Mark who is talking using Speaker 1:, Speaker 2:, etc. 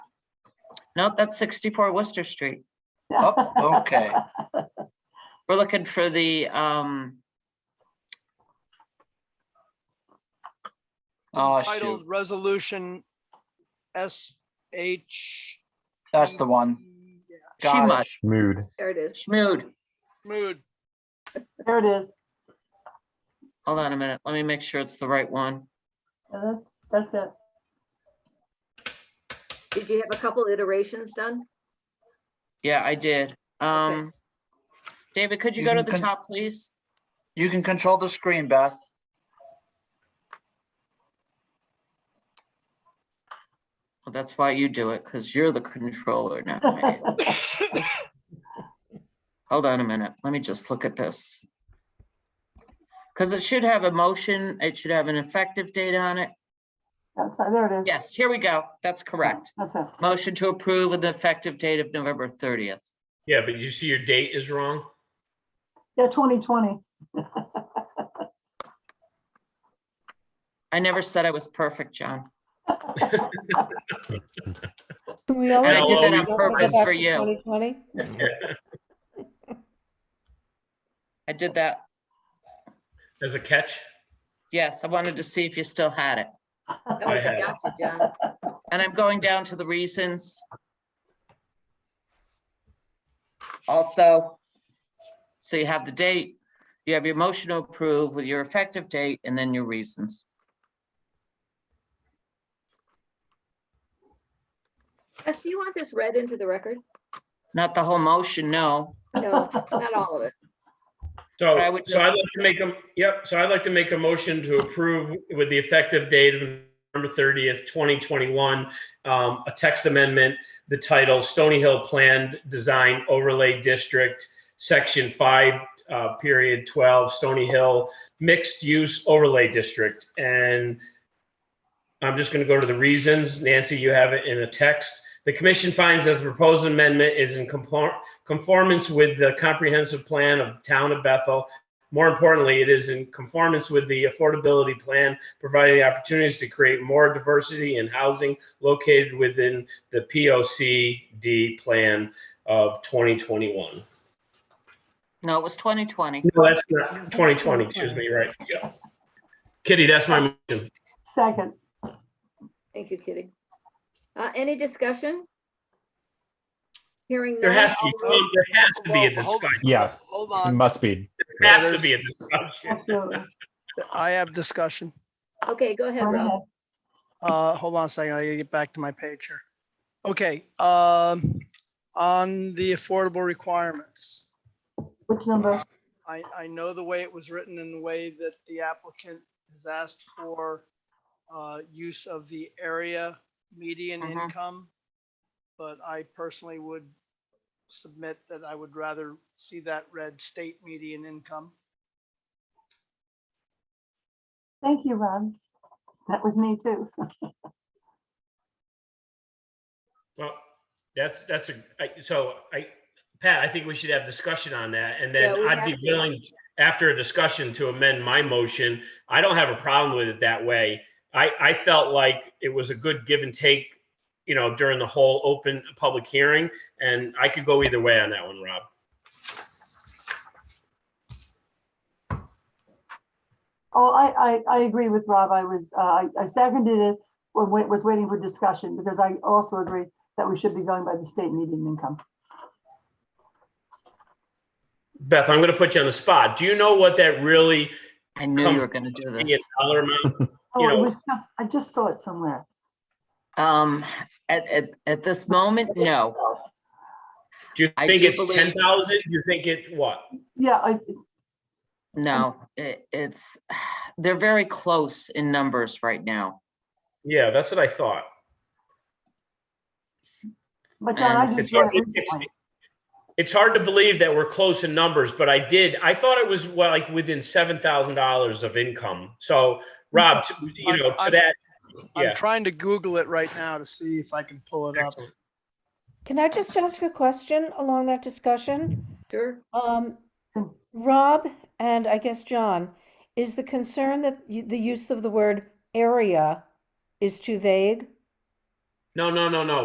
Speaker 1: No, that's sixty-four Worcester Street.
Speaker 2: Oh, okay.
Speaker 1: We're looking for the, um,
Speaker 2: Oh,
Speaker 3: Titled
Speaker 2: shoot.
Speaker 3: Resolution SH.
Speaker 2: That's the one. Got it.
Speaker 1: Shima,
Speaker 4: Mood.
Speaker 5: There it is.
Speaker 1: Schmood.
Speaker 3: Mood.
Speaker 5: There it is.
Speaker 1: Hold on a minute. Let me make sure it's the right one.
Speaker 5: Yeah, That's, that's it.
Speaker 6: Did you have a couple iterations done?
Speaker 1: Yeah, I did. Um, David, could you
Speaker 2: You
Speaker 1: go to
Speaker 2: can
Speaker 1: the
Speaker 2: con-
Speaker 1: top, please?
Speaker 2: You can control the screen, Beth.
Speaker 1: Well, That's why you do it, because you're the controller, not me. Hold on a minute. Let me just look at this. Because it should have a motion. It should have an effective date on it.
Speaker 5: That's, there it is.
Speaker 1: Yes, here we go. That's correct.
Speaker 5: That's it.
Speaker 1: Motion to approve with the effective date of November thirtieth.
Speaker 7: Yeah, but you see your date is wrong.
Speaker 5: Yeah, twenty twenty.
Speaker 1: I never said I was perfect, John.
Speaker 8: Can we all
Speaker 1: And Oh, I
Speaker 7: No,
Speaker 8: agree
Speaker 1: did that
Speaker 7: we-
Speaker 1: on
Speaker 8: we don't wanna go
Speaker 1: purpose
Speaker 8: back
Speaker 1: for
Speaker 8: to
Speaker 1: you.
Speaker 8: 2020?
Speaker 1: I did that.
Speaker 7: As a catch,
Speaker 1: Yes, I wanted to see if you still had it.
Speaker 6: Oh,
Speaker 7: I
Speaker 6: I
Speaker 7: had it.
Speaker 6: got you, John.
Speaker 1: And I'm going down to the reasons. Also, so you have the date, you have your motion to approve with your effective date and then your reasons.
Speaker 6: Beth, do you want this read into the record?
Speaker 1: Not the whole motion, no.
Speaker 6: No, not all of it.
Speaker 7: so,
Speaker 1: I would
Speaker 7: so I'd
Speaker 1: just-
Speaker 7: like to make a, yep, so I'd like to make a motion to approve with the effective date of November thirtieth, twenty twenty-one, um, a text amendment, the title Stony Hill Planned Design Overlay District, Section five, uh, period twelve, Stony Hill Mixed Use Overlay District. And I'm just gonna go to the reasons. Nancy, you have it in a text. The commission finds that the proposed amendment is in compar- conformance with the comprehensive plan of Town of Bethel. More importantly, it is in conformance with the affordability plan, providing the opportunities to create more diversity in housing located within the POCD plan of 2021.
Speaker 1: No, it was 2020.
Speaker 7: No, that's not 2020, excuse me, right? Yeah. Kitty, that's my motion.
Speaker 5: Second,
Speaker 6: Thank you, Kitty. Uh, any discussion? Hearing
Speaker 7: There
Speaker 6: none,
Speaker 7: has to be,
Speaker 6: all
Speaker 7: Tom,
Speaker 6: those-
Speaker 7: there has to be a
Speaker 3: Well, hold-
Speaker 7: discussion.
Speaker 4: Yeah.
Speaker 3: Hold
Speaker 4: It
Speaker 3: on,
Speaker 4: must be.
Speaker 7: There Has to be a discussion.
Speaker 5: absolutely.
Speaker 3: I have discussion.
Speaker 6: Okay, go ahead,
Speaker 5: Go
Speaker 6: Rob.
Speaker 5: ahead.
Speaker 3: Uh, hold on a second, I gotta get back to my page here. Okay, um, on the affordable requirements.
Speaker 5: Which number?
Speaker 3: I, I know the way it was written and the way that the applicant has asked for uh, use of the area median
Speaker 1: Mhm.
Speaker 3: income. But I personally would submit that I would rather see that read state median income.
Speaker 5: Thank you, Ron. That was me too.
Speaker 7: Well, that's, that's a, I- so I, Pat, I think we should have discussion on that and
Speaker 6: Yeah,
Speaker 7: then
Speaker 6: we
Speaker 7: I'd
Speaker 6: have
Speaker 7: be
Speaker 6: to.
Speaker 7: willing, after a discussion, to amend my motion. I don't have a problem with it that way. I, I felt like it was a good give and take, you know, during the whole open public hearing. And I could go either way on that one, Rob.
Speaker 5: Oh, I, I, I agree with Rob. I was, uh, I I seconded it when wait, was waiting for discussion because I also agree that we should be going by the state median income.
Speaker 7: Beth, I'm going to put you on the spot. Do you know what that really,
Speaker 1: I knew you
Speaker 7: Comes-
Speaker 1: were going to do
Speaker 7: in
Speaker 1: this.
Speaker 7: dollar amount?
Speaker 5: Oh,
Speaker 7: You
Speaker 5: it
Speaker 7: know-
Speaker 5: was just, I just saw it somewhere.
Speaker 1: Um, at, at, at this moment, no.
Speaker 7: Do you
Speaker 1: I
Speaker 7: think
Speaker 1: do
Speaker 7: it's
Speaker 1: believe-
Speaker 7: 10,000? Do you think it, what?
Speaker 5: Yeah, I,
Speaker 1: No, it, it's, they're very close in numbers right now.
Speaker 7: Yeah, that's what I thought.
Speaker 5: but John, I
Speaker 1: And
Speaker 5: just
Speaker 7: It's
Speaker 5: saw
Speaker 7: hard,
Speaker 5: it
Speaker 7: it's, it's-
Speaker 5: recently.
Speaker 7: it's hard to believe that we're close in numbers, but I did, I thought it was well, like within seven thousand dollars of income. So Rob, to- you
Speaker 3: I'm-
Speaker 7: know, to
Speaker 3: I'm-
Speaker 7: that,
Speaker 3: I'm
Speaker 7: yeah.
Speaker 3: trying to Google it right now to see if I can pull it up.
Speaker 8: Can I just ask a question along that discussion?
Speaker 6: Sure.
Speaker 8: Um,
Speaker 5: Hmm.
Speaker 8: Rob, and I guess John, is the concern that y- the use of the word area is too vague?
Speaker 7: No, no, no, no.